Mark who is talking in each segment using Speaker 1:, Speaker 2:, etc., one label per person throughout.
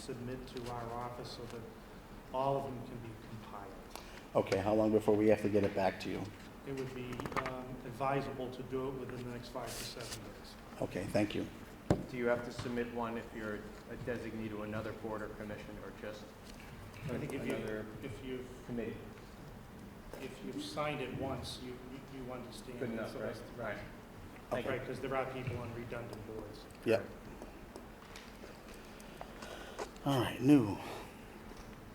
Speaker 1: submit to our office so that all of them can be compiled.
Speaker 2: Okay, how long before we have to get it back to you?
Speaker 1: It would be um, advisable to do it within the next five to seven days.
Speaker 2: Okay, thank you.
Speaker 3: Do you have to submit one if you're a designee to another board or commission or just
Speaker 1: I think if you,
Speaker 3: another
Speaker 1: if you've,
Speaker 3: committee?
Speaker 1: if you've signed it once, you, you- you understand.
Speaker 3: Good enough,
Speaker 1: So
Speaker 3: right?
Speaker 1: that's-
Speaker 3: Right. Thank you.
Speaker 1: Right, because there are people on redundant boards.
Speaker 2: Yep. All right, new.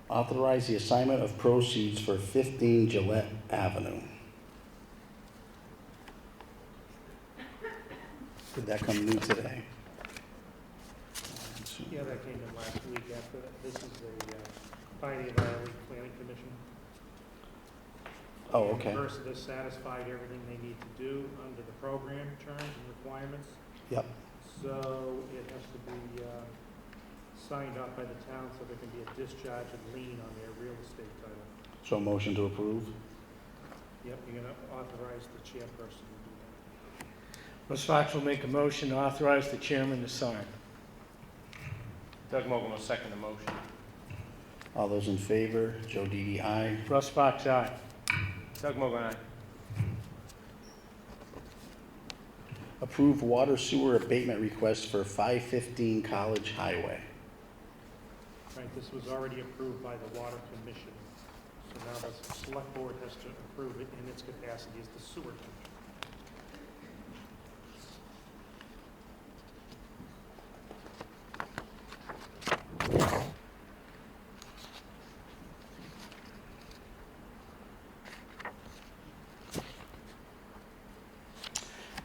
Speaker 2: Authorize the assignment of proceeds for 15 Gillette Avenue. Did that come new today?
Speaker 1: Yeah, that came in last week after, this is the uh, Pioneer Valley Planning Commission.
Speaker 2: Oh,
Speaker 1: And
Speaker 2: okay.
Speaker 1: Versed has satisfied everything they need to do under the program terms and requirements.
Speaker 2: Yep.
Speaker 1: So it has to be uh, signed off by the town so there can be a discharge and lien on their real estate title.
Speaker 2: So motion to approve?
Speaker 1: Yep, you're gonna authorize the chairperson to do that.
Speaker 4: Russ Fox will make a motion to authorize the chairman to sign.
Speaker 3: Doug Mogul will second the motion.
Speaker 2: All those in favor? Joe Didi, aye.
Speaker 4: Russ Fox, aye.
Speaker 3: Doug Mogul, aye.
Speaker 2: Approve water sewer abatement request for 515 College Highway.
Speaker 1: Right, this was already approved by the Water Commission, so now the Select Board has to approve it in its capacity as the sewer commission.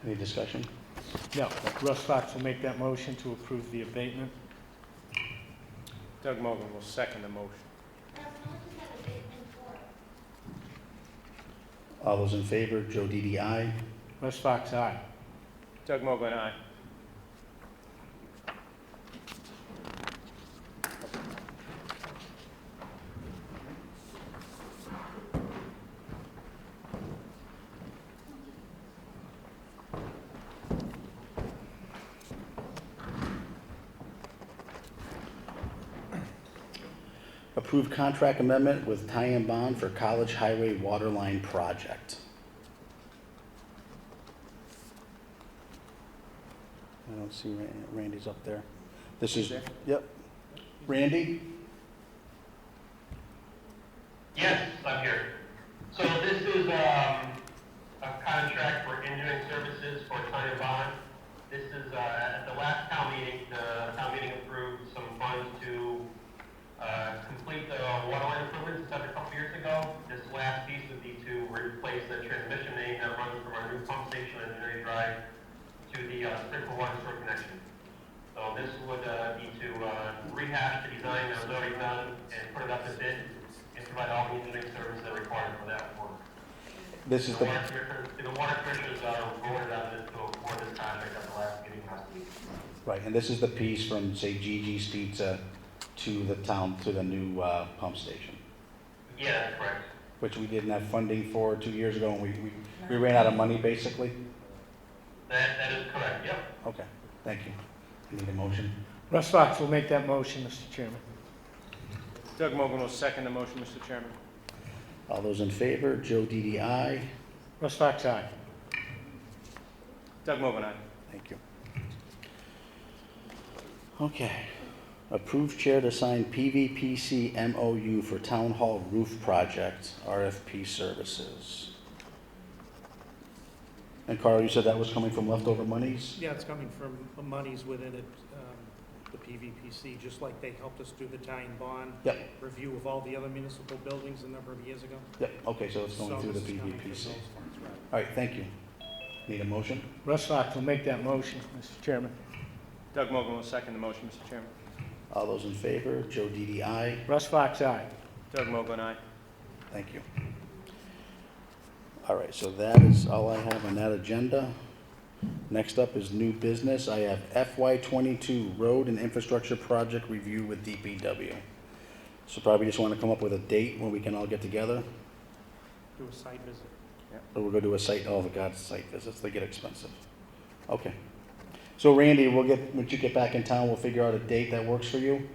Speaker 2: Any discussion?
Speaker 4: No, Russ Fox will make that motion to approve the abatement.
Speaker 3: Doug Mogul will second the motion.
Speaker 2: All those in favor? Joe Didi, aye.
Speaker 4: Russ Fox, aye.
Speaker 3: Doug Mogul, aye.
Speaker 2: Approve contract amendment with tie and bond for College Highway Waterline Project. I don't see Ran- Randy's up there. This is, yep. Randy?
Speaker 5: Yes, I'm here. So this is, um, a contract for engineering services for Tanya Bond. This is, uh, at the last town meeting, the town meeting approved some funds to, uh, complete the water line improvements done a couple years ago. This last piece would be to replace the transmission main that runs from our new pump station on Newry Drive to the uh, sprinkler water sewer connection. So this would, uh, be to, uh, rehash the design that was already done and put it up to bid and provide all the engineering services that are required for that work.
Speaker 2: This is
Speaker 5: The
Speaker 2: the,
Speaker 5: water commissioners, the water commissioners, uh, voted on this to award this contract at the last meeting last week.
Speaker 2: right, and this is the piece from, say, Gigi's Pizza to the town, to the new uh, pump station,
Speaker 5: Yeah, that's correct.
Speaker 2: which we didn't have funding for two years ago, and we, we we ran out of money, basically?
Speaker 5: That, that is correct, yep.
Speaker 2: Okay, thank you. I Need a motion?
Speaker 4: Russ Fox will make that motion, Mr. Chairman.
Speaker 3: Doug Mogul will second the motion, Mr. Chairman.
Speaker 2: All those in favor? Joe Didi, aye.
Speaker 4: Russ Fox, aye.
Speaker 3: Doug Mogul, aye.
Speaker 2: Thank you. Okay. Approved chair to sign PVPC MOU for Town Hall Roof Project, RFP Services. And Carl, you said that was coming from leftover monies?
Speaker 1: Yeah, it's coming from monies within it, um, the PVPC, just like they helped us do the tying bond.
Speaker 2: Yep.
Speaker 1: Review of all the other municipal buildings a number of years ago.
Speaker 2: Yep, okay, so it's going
Speaker 1: So
Speaker 2: through the
Speaker 1: this is coming from
Speaker 2: PVPC. All
Speaker 1: those funds, right.
Speaker 2: right, thank you. Need a motion?
Speaker 4: Russ Fox will make that motion, Mr. Chairman.
Speaker 3: Doug Mogul will second the motion, Mr. Chairman.
Speaker 2: All those in favor? Joe Didi, aye.
Speaker 4: Russ Fox, aye.
Speaker 3: Doug Mogul, aye.
Speaker 2: Thank you. All right, so that is all I have on that agenda. Next up is new business. I have FY twenty-two road and infrastructure project review with DPW. So probably just want to come up with a date when we can all get together,
Speaker 1: Do a site visit.
Speaker 2: or we'll go do a site, oh, the God's site visits, they get expensive. Okay. So Randy, we'll get, once you get back in town, we'll figure out a date that works for you.